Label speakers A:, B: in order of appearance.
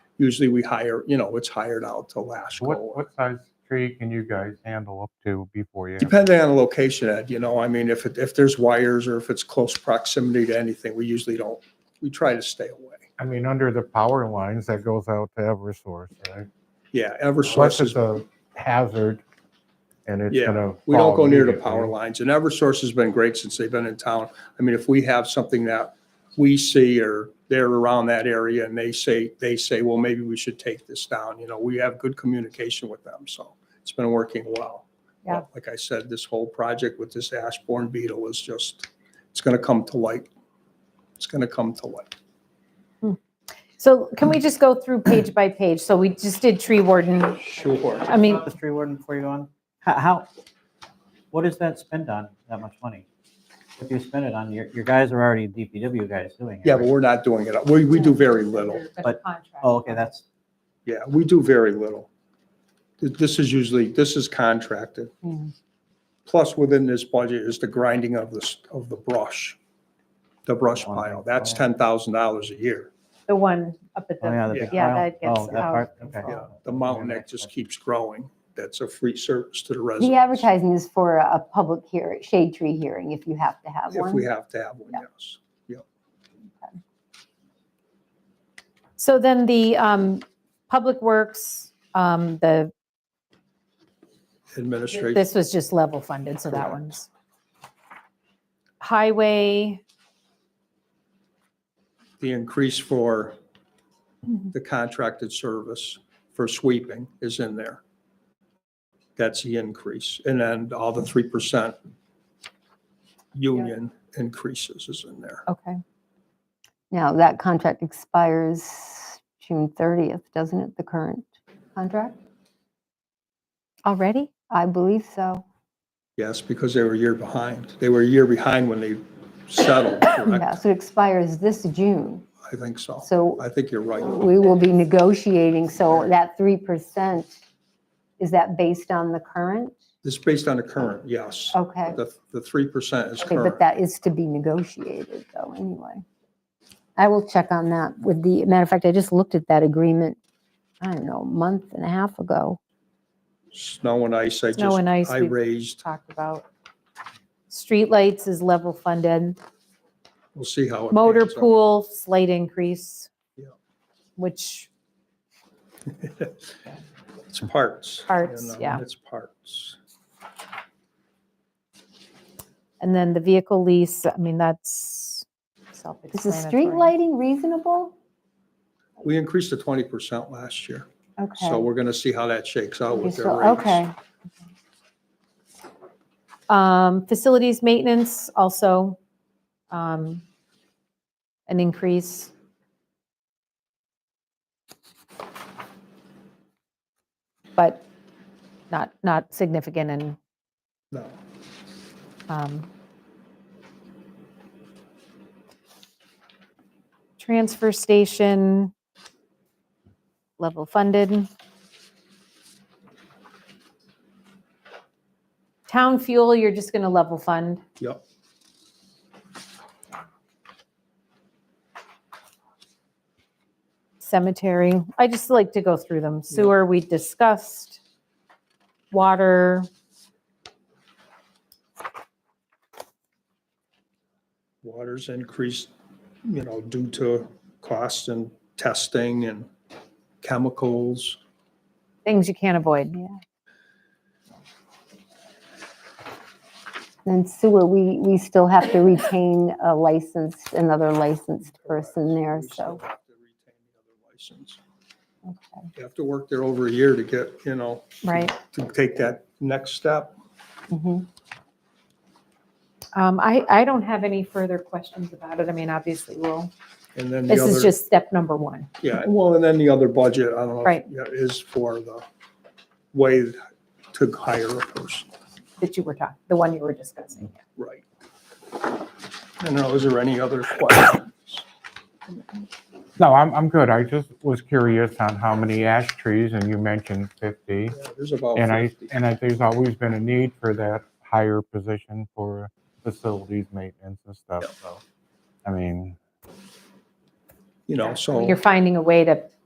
A: Usually we hire, you know, it's hired out to
B: So What,
A: Lasco.
B: what size tree can you guys handle up to before you? have-
A: Depending on the location, Ed, you know, I mean, if, it- if there's wires or if it's close proximity to anything, we usually don't, we try to stay away.
B: I mean, under the power lines that goes out to Eversource, right?
A: Yeah,
B: Unless
A: Eversource
B: it's
A: is,
B: a hazard and it's
A: Yeah,
B: gonna.
A: we don't
B: fall
A: go near the
B: immediately.
A: power lines and Eversource has been great since they've been in town. I mean, if we have something that we see or they're around that area and they say, they say, well, maybe we should take this down, you know, we have good communication with them, so it's been working well.
C: Yeah.
A: Like I said, this whole project with this Ashbourne beetle is just, it's gonna come to light. It's gonna come to light.
C: So can we just go through page by page? So we just did tree warden.
A: Sure.
C: I mean,
D: About The tree warden before you go on, Ho- how, what is that spend on, that much money? What do you spend it on? Your, your guys are already DPW guys doing it.
A: Yeah, but
D: right?
A: we're not doing it. We, we do very little.
D: But- Oh, okay, that's,
A: Yeah, we do very little. Th- This is usually, this is contracted.
C: Mhm.
A: Plus, within this budget is the grinding of this, of the brush, the brush pile. That's ten thousand dollars a year.
C: the one up at
D: oh, yeah, the
C: the,
D: big
C: yeah,
D: pile.
C: that gets
D: Oh, that
C: out
D: part,
C: of
D: okay.
C: control.
A: The mountain that just keeps growing. That's a free service to the
E: The
A: residents.
E: advertising is for a a public hear, shade tree hearing, if you have to have
A: If we
E: one.
A: have to have one,
E: Yeah.
A: yes.
C: So then the um, Public Works, um, the,
A: Administration,
C: this was just level funded, so that one's. Highway,
A: the increase for
E: Mm-hmm.
A: the contracted service for sweeping is in there. That's the increase. And then all the three percent union increases is in there.
C: okay.
E: Now, that contract expires June 30th, doesn't it, the current contract?
C: Already?
E: I believe so.
A: Yes, because they were a year behind. They were a year behind when they settled,
E: Yeah,
A: correct?
E: so it expires this June.
A: I think so.
E: So
A: I think you're right.
E: we will be negotiating, so that 3%, is that based on the current?
A: It's based on the current, yes.
E: Okay.
A: The, the three percent is
E: Okay, but
A: current.
E: that is to be negotiated though, anyway. I will check on that with the, matter of fact, I just looked at that agreement, I don't know, a month and a half ago.
A: Snow and ice, I
C: Snow
A: just,
C: and ice,
A: I
C: we-
A: raised,
C: Talked about. Streetlights is level funded.
A: we'll see how. it
C: Motor
A: pans out.
C: pool, slight increase.
A: Yeah.
C: Which,
A: It's parts. you
C: Parts,
A: know,
C: yeah.
A: It's parts.
C: and then the vehicle lease, I mean, that's
E: Is the
C: self-explanatory.
E: street lighting reasonable?
A: We increased to twenty percent last year,
E: Okay.
A: so we're gonna see how that shakes out
E: You're
A: with their
E: still-
A: rates.
E: Okay,
C: Um, Facilities maintenance also, um, an increase. But not, not significant and,
A: No,
C: um, transfer station, level funded. Town fuel, you're just gonna level fund.
A: yep,
C: cemetery. I just like to go through them. Sewer, we discussed. Water,
A: water's increased, you know, due to cost and testing and chemicals.
C: things you can't avoid.
E: then sewer, we, we still have to retain a licensed, another licensed person there,
A: We still
E: so,
A: have to retain the other license.
E: okay.
A: You have to work there over a year to get, you know,
C: Right.
A: to take that next step.
E: Mhm.
C: Um, I, I don't have any further questions about it. I mean, obviously, we'll,
A: And then the
C: this is
A: other,
C: just step number one.
A: yeah, well, and then the other budget, I don't know. if-
C: Right.
A: yeah, Is for the way to hire a person.
C: that you were talking, the one you were discussing.
A: Right. And now, is there any other questions?
B: No, I'm, I'm good. I just was curious on how many ash trees and you mentioned fifty.
A: Yeah, There's about
B: And I,
A: 50.
B: and I, there's always been a need for that higher position for facilities maintenance and stuff, so. I mean.
A: You know, so.
C: You're finding a way to